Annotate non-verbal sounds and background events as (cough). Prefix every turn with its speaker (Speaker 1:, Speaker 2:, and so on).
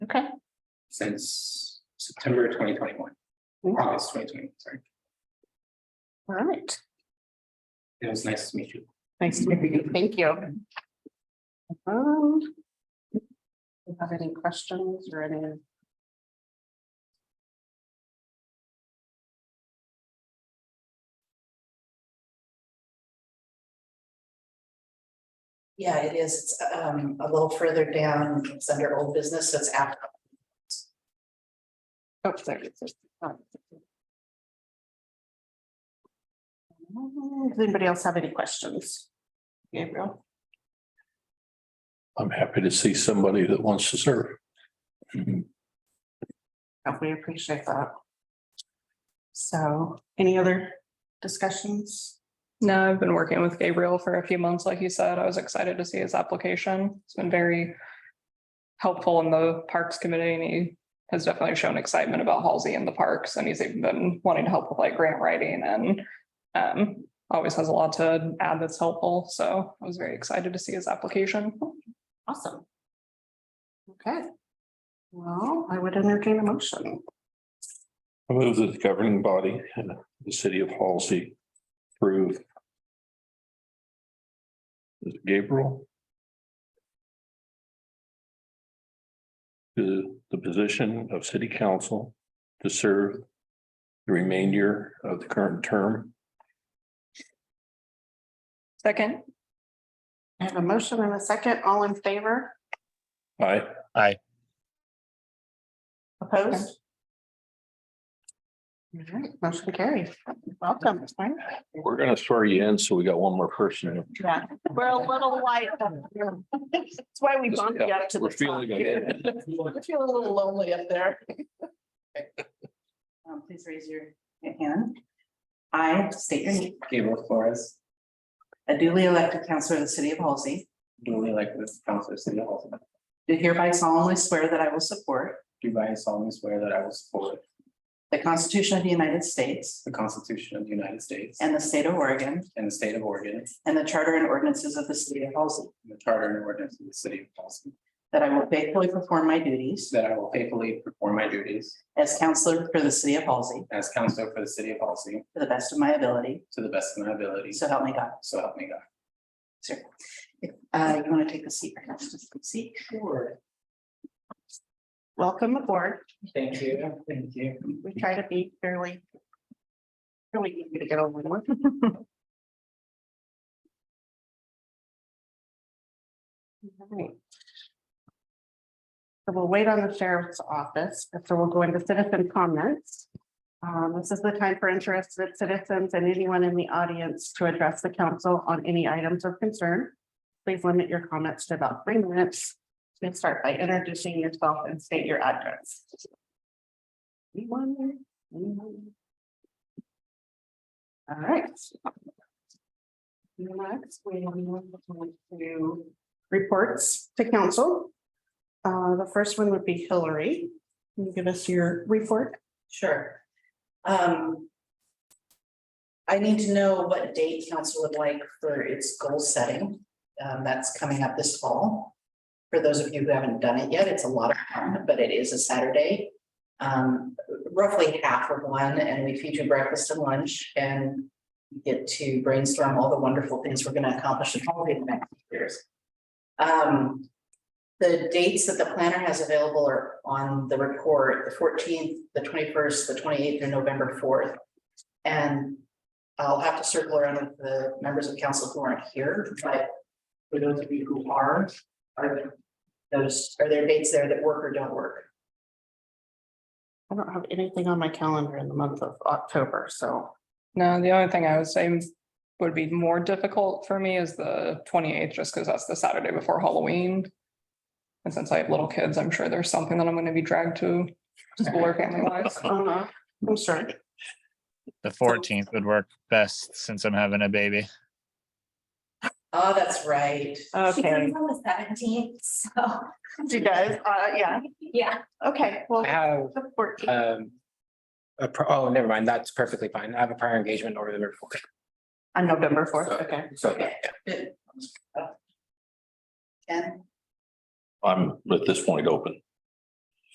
Speaker 1: Okay.
Speaker 2: since September twenty twenty one.
Speaker 1: Mm.
Speaker 2: August twenty twenty, sorry.
Speaker 1: All right.
Speaker 2: It was nice to meet you.
Speaker 1: Nice to meet you. Thank you. Um, do you Have any questions or any?
Speaker 3: Yeah, it is. It's um a little further down. It's under old business, so it's after.
Speaker 1: Oh, there it is. Um, Does anybody else have any questions? Gabriel?
Speaker 4: I'm happy to see somebody that wants to serve.
Speaker 1: Oh, We appreciate that. So any other discussions?
Speaker 5: No, I've been working with Gabriel for a few months, like you said. I was excited to see his application. It's been very helpful in the Parks Committee and he has definitely shown excitement about Halsey and the parks and he's even been wanting to help with like grant writing and um, always has a lot to add that's helpful. So I was very excited to see his application.
Speaker 1: Awesome. Okay. Well, I would entertain a motion.
Speaker 4: I move that the governing body, uh, the city of Halsey, approve. Is it Gabriel. To the position of city council to serve the remainder of the current term.
Speaker 5: Second,
Speaker 1: I have a motion and a second. All in favor?
Speaker 4: I,
Speaker 1: Opposed? All right, motion carries. Welcome.
Speaker 4: we're gonna swear you in, so we got one more person.
Speaker 1: Yeah, We're a little light. That's why we bumped you up to the
Speaker 4: We're
Speaker 1: top.
Speaker 4: feeling
Speaker 1: here. (laughs)
Speaker 4: it.
Speaker 1: I feel a little lonely up there.
Speaker 3: Um, please raise your hand. I state your name,
Speaker 2: Gabriel Flores,
Speaker 3: a duly elected councillor of the city of Halsey,
Speaker 2: duly elected as councilor of city of Halton.
Speaker 3: do hereby solemnly swear that I will support
Speaker 2: Do solemnly swear that I will support
Speaker 3: the Constitution of the United States
Speaker 2: the Constitution of the United States
Speaker 3: and the state of Oregon
Speaker 2: and the state of Oregon and
Speaker 3: and the charter and ordinances of the city of Halsey,
Speaker 2: the charter and ordinance of the city of Halton.
Speaker 3: that I will faithfully perform my duties
Speaker 2: That I will faithfully perform my duties
Speaker 3: as councillor for the city of Halsey
Speaker 2: as councilor for the city of Halton
Speaker 3: to the best of my ability,
Speaker 2: to the best of my ability.
Speaker 3: so help me God.
Speaker 2: So help me God.
Speaker 3: Sure. Uh, you want to take a seat, perhaps, just a seat?
Speaker 2: Sure.
Speaker 1: Welcome aboard.
Speaker 2: Thank you. Thank you.
Speaker 1: We try to be fairly. Really easy to get over with. Alright. So we'll wait on the sheriff's office, and so we'll go into citizen comments. Um, this is the time for interested citizens and anyone in the audience to address the council on any items of concern. Please limit your comments to about three minutes. Please start by introducing yourself and state your address. Anyone there? Anyone? All right. Next, we are going to reports to council. Uh, the first one would be Hillary. Can you give us your report?
Speaker 3: Sure. Um. I need to know what date council would like for its goal setting. Um, that's coming up this fall. For those of you who haven't done it yet, it's a lot of fun, but it is a Saturday. Um, roughly half of one, and we feature breakfast and lunch and. you Get to brainstorm all the wonderful things we're gonna accomplish in all the next years. Um, the dates that the planner has available are on the report, the fourteenth, the twenty-first, the twenty-eighth, and November fourth. And I'll have to circle around with the members of council who aren't here, but for those of you who are, are there those, are there dates there that work or don't work?
Speaker 1: I don't have anything on my calendar in the month of October, so.
Speaker 5: no, the only thing I would say would be more difficult for me is the twenty-eighth, just because that's the Saturday before Halloween. And since I have little kids, I'm sure there's something that I'm gonna be dragged to school or family wise.
Speaker 1: uh, I'm
Speaker 2: (laughs)
Speaker 1: sorry.
Speaker 6: The fourteenth would work best since I'm having a baby.
Speaker 3: Oh, that's right.
Speaker 7: She's
Speaker 1: Okay,
Speaker 7: on the seventeenth, so,
Speaker 1: you guys, uh, yeah,
Speaker 7: yeah,
Speaker 1: okay, well.
Speaker 2: I have
Speaker 1: the 14th.
Speaker 2: um. A pro- oh, never mind. That's perfectly fine. I have a prior engagement over the report.
Speaker 1: On November fourth, okay.
Speaker 2: So
Speaker 3: And
Speaker 4: I'm at this point open.